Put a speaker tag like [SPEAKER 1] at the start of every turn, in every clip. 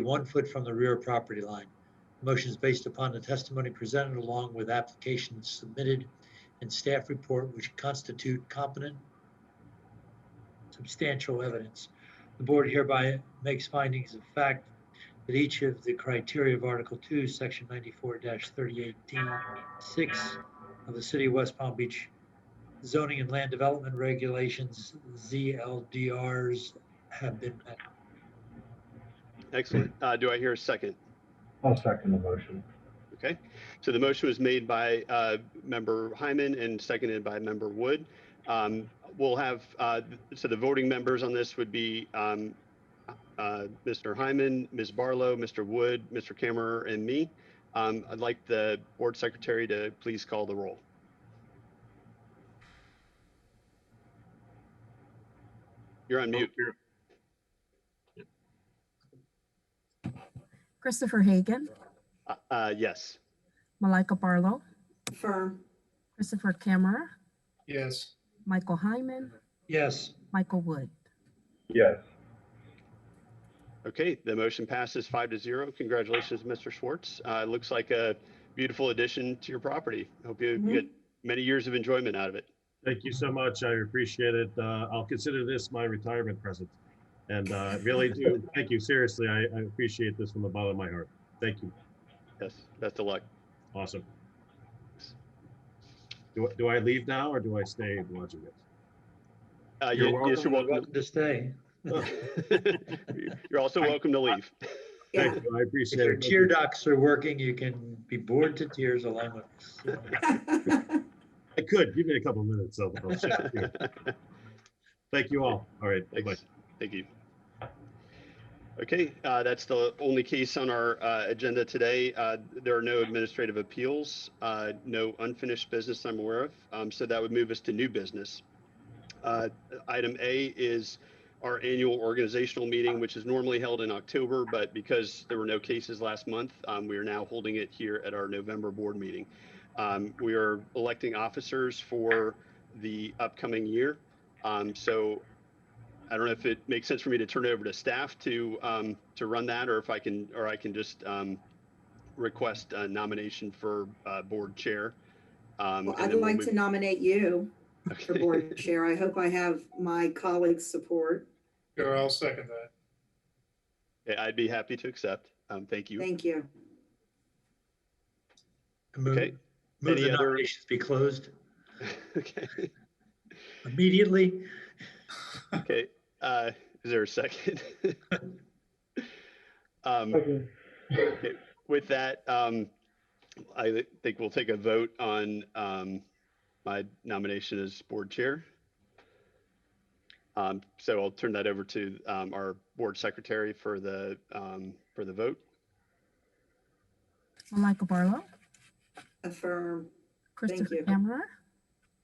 [SPEAKER 1] one foot from the rear property line. Motion is based upon the testimony presented along with applications submitted and staff report which constitute competent substantial evidence. The board hereby makes findings of fact that each of the criteria of Article Two, Section ninety-four thirty-eight D six of the City of West Palm Beach zoning and land development regulations, ZLDRs, have been met.
[SPEAKER 2] Excellent. Uh, do I hear a second?
[SPEAKER 3] I'll second the motion.
[SPEAKER 2] Okay. So the motion was made by uh, Member Hyman and seconded by Member Wood. Um, we'll have, uh, so the voting members on this would be um, uh, Mr. Hyman, Ms. Barlow, Mr. Wood, Mr. Kammerer, and me. Um, I'd like the board secretary to please call the roll. You're on mute.
[SPEAKER 4] Christopher Hagan,
[SPEAKER 2] Uh, Uh, yes.
[SPEAKER 4] Malika Barlow,
[SPEAKER 5] Affirm.
[SPEAKER 4] Christopher Camera,
[SPEAKER 6] Yes.
[SPEAKER 4] Michael Hyman,
[SPEAKER 1] Yes,
[SPEAKER 4] Michael Wood.
[SPEAKER 3] Yes,
[SPEAKER 2] Okay, the motion passes five to zero. Congratulations, Mr. Schwartz. Uh, it looks like a beautiful addition to your property. Hope you
[SPEAKER 5] Mhm.
[SPEAKER 2] get many years of enjoyment out of it.
[SPEAKER 7] Thank you so much. I appreciate it. Uh, I'll consider this my retirement present. And uh, really do, thank you. Seriously, I, I appreciate this from the bottom of my heart. Thank you.
[SPEAKER 2] Yes, best of luck.
[SPEAKER 7] Awesome. Do, do I leave now or do I stay watching it?
[SPEAKER 2] Uh,
[SPEAKER 1] you're
[SPEAKER 2] you-
[SPEAKER 1] welcome
[SPEAKER 2] yes, you're
[SPEAKER 1] you're welcome to stay.
[SPEAKER 2] welcome. You're also welcome to leave.
[SPEAKER 5] Yeah.
[SPEAKER 7] Thank you. I
[SPEAKER 1] If
[SPEAKER 7] appreciate
[SPEAKER 1] your
[SPEAKER 7] it.
[SPEAKER 1] tear ducts are working, you can be bored to tears along with us.
[SPEAKER 7] I could, give me a couple minutes. I'll- I'll shift here. Thank you all. All right. Bye.
[SPEAKER 2] Thanks. Thank you. Okay, uh, that's the only case on our uh, agenda today. Uh, There are no administrative appeals, uh, no unfinished business I'm aware of. Um, So that would move us to new business. Uh, Item A is our annual organizational meeting, which is normally held in October, but because there were no cases last month, um, we are now holding it here at our November board meeting. Um, We are electing officers for the upcoming year. Um, So I don't know if it makes sense for me to turn it over to staff to, um, to run that, or if I can, or I can just, um, request a nomination for, uh, board chair. Um,
[SPEAKER 5] Well,
[SPEAKER 2] and
[SPEAKER 5] I'd
[SPEAKER 2] then we'll
[SPEAKER 5] like to
[SPEAKER 2] move-
[SPEAKER 5] nominate you for
[SPEAKER 2] Okay.
[SPEAKER 5] board chair. I hope I have my colleagues' support.
[SPEAKER 6] Sure, I'll second that.
[SPEAKER 2] Yeah, I'd be happy to accept. Um, thank you.
[SPEAKER 5] Thank you.
[SPEAKER 2] Okay.
[SPEAKER 1] Move move
[SPEAKER 2] Any
[SPEAKER 1] the
[SPEAKER 2] other-
[SPEAKER 1] nominations be closed
[SPEAKER 2] Okay,
[SPEAKER 1] immediately.
[SPEAKER 2] okay. Uh, is there a second? Um,
[SPEAKER 3] second,
[SPEAKER 2] with that, um, I thi- think we'll take a vote on, um, my nomination as board chair. Um, so I'll turn that over to, um, our board secretary for the, um, for the vote.
[SPEAKER 4] Malika Barlow,
[SPEAKER 5] Affirm.
[SPEAKER 4] Christopher
[SPEAKER 5] you.
[SPEAKER 4] Camera,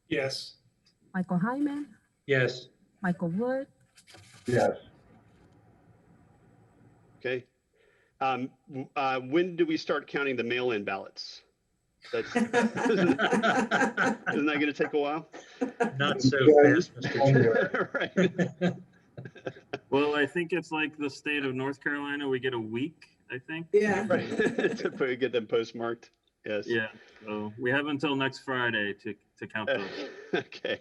[SPEAKER 6] Yes.
[SPEAKER 4] Michael Hyman,
[SPEAKER 1] Yes,
[SPEAKER 4] Michael Wood.
[SPEAKER 3] yes.
[SPEAKER 2] Okay. Um, w- uh, when do we start counting the mail-in ballots? That's, isn't that going to take a while?
[SPEAKER 1] not so
[SPEAKER 3] Yeah.
[SPEAKER 1] fast, Mr.
[SPEAKER 2] Right.
[SPEAKER 1] Chair.
[SPEAKER 8] Well, I think it's like the state of North Carolina. We get a week, I think.
[SPEAKER 5] Yeah.
[SPEAKER 2] Right. To put- get them postmarked. Yes.
[SPEAKER 8] Yeah. So we have until next Friday to, to count
[SPEAKER 2] Uh,
[SPEAKER 8] those.
[SPEAKER 2] Okay.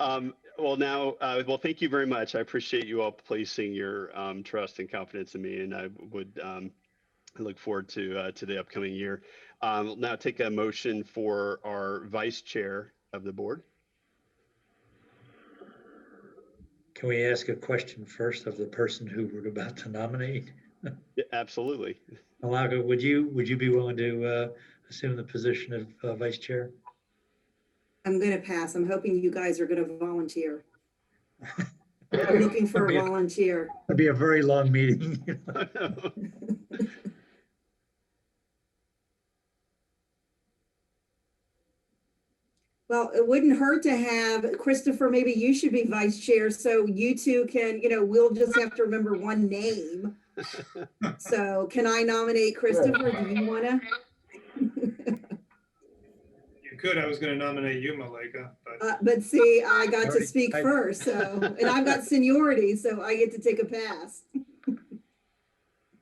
[SPEAKER 2] Um, well, now, uh, well, thank you very much. I appreciate you all placing your, um, trust and confidence in me and I would, um, I look forward to, uh, to the upcoming year. Um, we'll now take a motion for our vice chair of the board.
[SPEAKER 1] Can we ask a question first of the person who we're about to nominate?
[SPEAKER 2] Yeah, Absolutely.
[SPEAKER 1] Malaga, would you, would you be willing to uh, assume the position of uh, vice chair?
[SPEAKER 5] I'm going to pass. I'm hoping you guys are going to volunteer. I'm looking for a volunteer.
[SPEAKER 1] It'd be a very long meeting.
[SPEAKER 5] Well, it wouldn't hurt to have, Christopher, maybe you should be vice chair so you two can, you know, we'll just have to remember one name. So can I nominate Christopher? Do you want to?
[SPEAKER 6] You could, I was gonna nominate you, Malika, but
[SPEAKER 5] Uh, but see, I got to
[SPEAKER 1] Already,
[SPEAKER 5] speak
[SPEAKER 1] I-
[SPEAKER 5] first, so, and I've got seniority, so I get to take a pass.